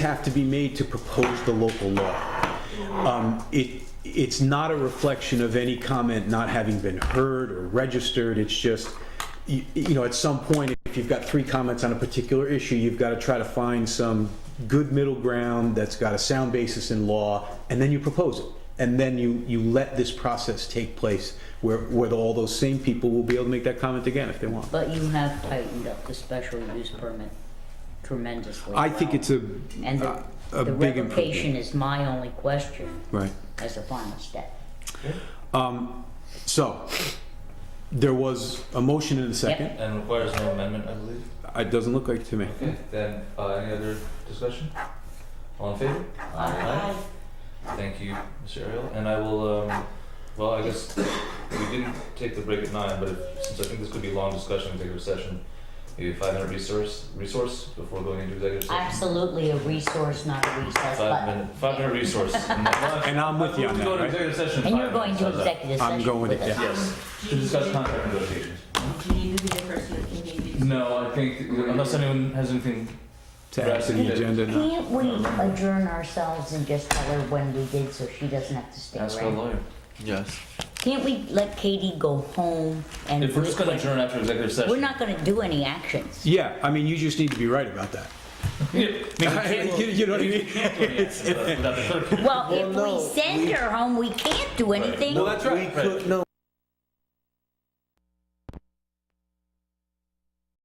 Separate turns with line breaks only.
have to be made to propose the local law. Um, It, it's not a reflection of any comment not having been heard or registered, it's just, you you know, at some point, if you've got three comments on a particular issue, you've got to try to find some good middle ground that's got a sound basis in law, and then you propose it. And then you, you let this process take place where, where all those same people will be able to make that comment again if they want.
But you have tightened up the special use permit tremendously.
I think
well.
it's a,
And the,
a
the
big
revocation
improvement.
is my only question
Right.
as a final step.
Um, So, there was a motion in a second.
And requires no amendment, I believe.
It doesn't look like to me.
Okay, then, uh, any other discussion? All in favor?
Aye.
Thank you, Mr. Ariel, and I will, um, well, I guess we didn't take the break at nine, but if, since I think this could be a long discussion, executive session, maybe five minute resource, resource before going into executive session.
Absolutely a resource, not a recess,
Five
but,
minute, five minute resource. And
And I'm with you on
Go to
that, right?
executive session.
and
five
you're going
minutes,
to
how's that?
executive
I'm
session
going
with
with it,
us.
yeah.
Yes, to discuss contract negotiations.
Do you need to be the person that continues?
No, I think, unless anyone has anything,
To add to the agenda, no.
Can't we adjourn ourselves and just tell her when we did so she doesn't have to stay
ask our
around?
lawyer.
Yes.
Can't we let Katie go home and?
If we're just gonna adjourn after executive session.
We're not gonna do any actions.
Yeah, I mean, you just need to be right about that. You you know what I mean?
Without the clerk.
Well, if
Well,
we
no,
send her home, we can't do anything.
Well, that's
We
right.
could, no,